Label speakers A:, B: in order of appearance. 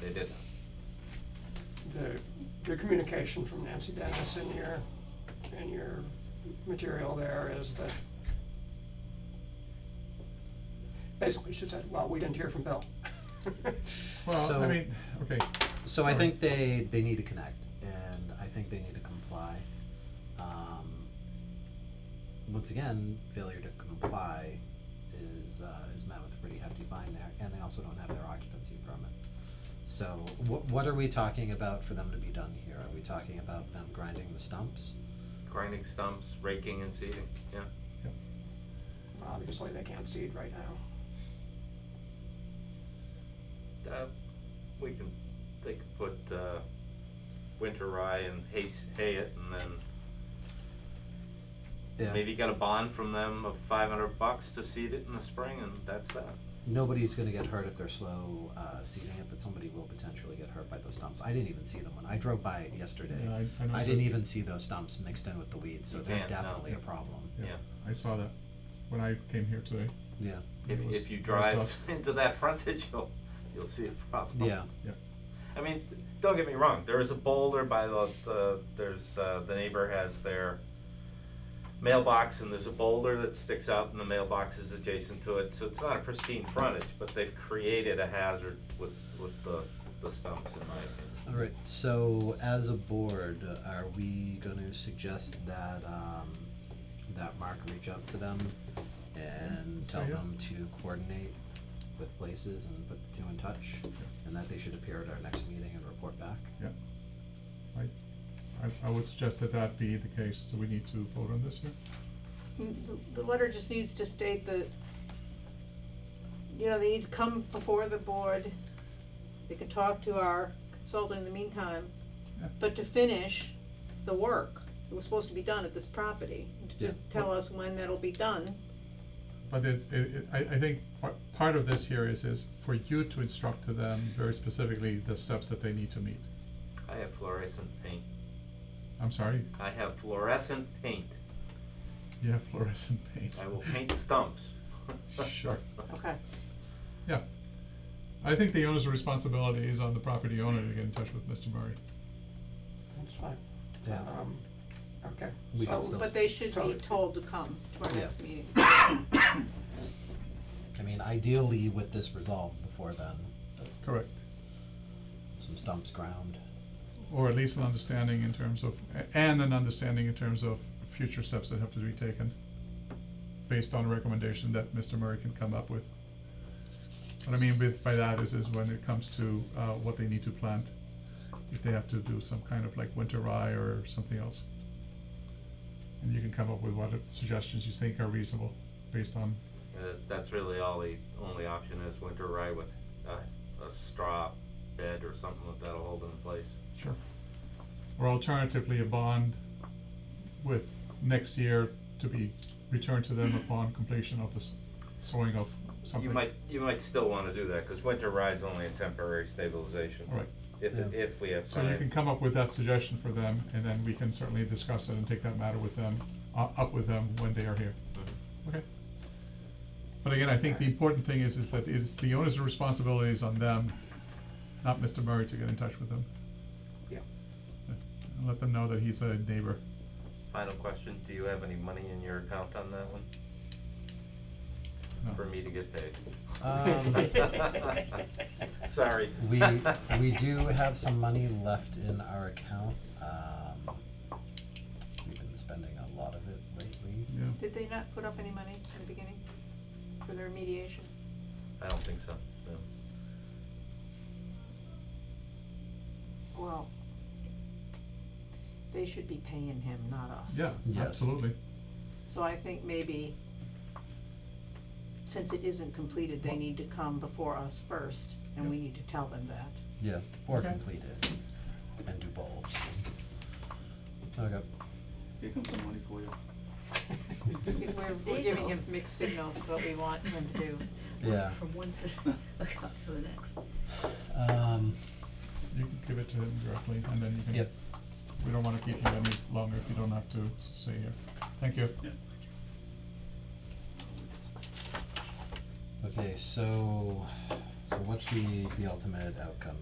A: They did.
B: the, the communication from Nancy Dennis in your, in your material there is that basically she said, well, we didn't hear from Bill.
C: Well, I
D: So-
C: mean, okay.
D: So I
C: sorry.
D: think they, they need to connect, and I think they need to comply. Um, once again, failure to comply is, uh, is met with a pretty hefty fine there, and they also don't have their occupancy permit. So what, what are we talking about for them to be done here? Are we talking about them grinding the stumps?
A: Grinding stumps, raking and seeding, yeah.
B: Obviously, they can't see it right now.
A: Uh, we can, they could put, uh, winter rye and hay, s- hay it and then
D: Yeah.
A: maybe get a bond from them of five hundred bucks to seed it in the spring and that's that.
D: Nobody's gonna get hurt if they're slow, uh, seeding it, but somebody will potentially get hurt by those stumps. I didn't even see them when I drove by it yesterday.
C: Yeah, I- I
D: I
C: noticed
D: didn't
C: it.
D: even see those stumps mixed in with the weeds, so
A: You
D: they're
A: can't, no.
D: definitely a problem.
A: Yeah.
C: I saw that when I came here today.
D: Yeah,
A: If,
C: It was-
A: if you
C: it was
A: drive
C: dusk.
A: into that frontage, you'll, you'll see a problem.
D: yeah,
C: Yeah,
A: I mean, don't get me wrong. There is a boulder by the, the there's uh, the neighbor has their mailbox, and there's a boulder that sticks out, and the mailbox is adjacent to it. So it's not a pristine frontage, but they've created a hazard with with the the stumps, in my opinion.
D: alright, so as a board, are we gonna suggest that, um, that Mark reach out to them? And
C: so
D: tell
C: yeah.
D: them to coordinate with places and put the two in touch? And that they should appear at our next meeting and report back?
C: yeah. I, I, I would suggest that that be the case. Do we need to vote on this here?
E: Mm, The, the letter just needs to state that, you know, they need to come before the board, they can talk to our consultant in the meantime,
C: Yeah.
E: but to finish the work, it was supposed to be done at this property, to just
D: Yeah.
E: tell us when that'll be done.
C: But it's, it, it, I, I think part, part of this here is, is for you to instruct to them very specifically the steps that they need to meet.
A: I have fluorescent paint.
C: I'm sorry,
A: I have fluorescent paint.
C: you have fluorescent paint.
A: I will paint stumps.
C: Sure.
E: Okay.
C: Yeah. I think the owner's responsibility is on the property owner to get in touch with Mr. Murray.
B: That's fine.
D: Yeah.
B: Um, Okay.
D: We can
B: So-
D: still-
E: But they should be
B: Totally.
E: told to come to our
D: Yeah.
E: next meeting.
D: I mean, ideally with this resolved before then,
C: Correct.
D: some stumps ground.
C: Or at least an understanding in terms of, a- and an understanding in terms of future steps that have to be taken based on a recommendation that Mr. Murray can come up with. What I mean with, by that is, is when it comes to, uh, what they need to plant, if they have to do some kind of like winter rye or something else. And you can come up with what suggestions you think are reasonable based on
A: Uh, that's really all the only option is winter rye with a, a straw bed or something like that'll hold it in place.
C: Sure. Or alternatively, a bond with next year to be returned to them upon completion of the s- sowing of something.
A: You might, you might still wanna do that, cause winter rye's only a temporary stabilization.
C: All right.
A: If,
D: Yeah.
A: if we have
C: So you can
A: time,
C: come up with that suggestion for them, and then we can certainly discuss it and take that matter with them, uh, up with them when they are here.
A: Mm-hmm.
C: Okay. But again, I think the important thing is, is that it's the owner's responsibility is on them, not Mr. Murray to get in touch with them.
B: Yeah.
C: Yeah. And let them know that he's a neighbor.
A: final question, do you have any money in your account on that one?
C: No.
A: For me to get paid?
D: Um,
A: Sorry.
D: We, we do have some money left in our account, um, we've been spending a lot of it lately.
C: Yeah.
E: Did they not put up any money in the beginning for their remediation?
A: I don't think so, no.
E: Well, they should be paying him, not us.
C: Yeah,
D: Yes.
C: absolutely.
E: So I think maybe, since it isn't completed, they need to come before us first, and we need to tell them that.
D: Yeah. Or
C: Okay.
D: complete it, and do both. Okay,
F: Here comes some money for you.
E: If We're,
G: There
E: we're
G: you
E: giving
G: go.
E: him mixed signals, what we want him to do.
D: Yeah.
G: From one to, up to the next.
D: um,
C: You can give it to him directly, and then you can.
D: Yep.
C: We don't wanna keep you any longer if you don't have to s- stay here. Thank you.
F: Yeah.
D: okay, so, so what's the, the ultimate outcome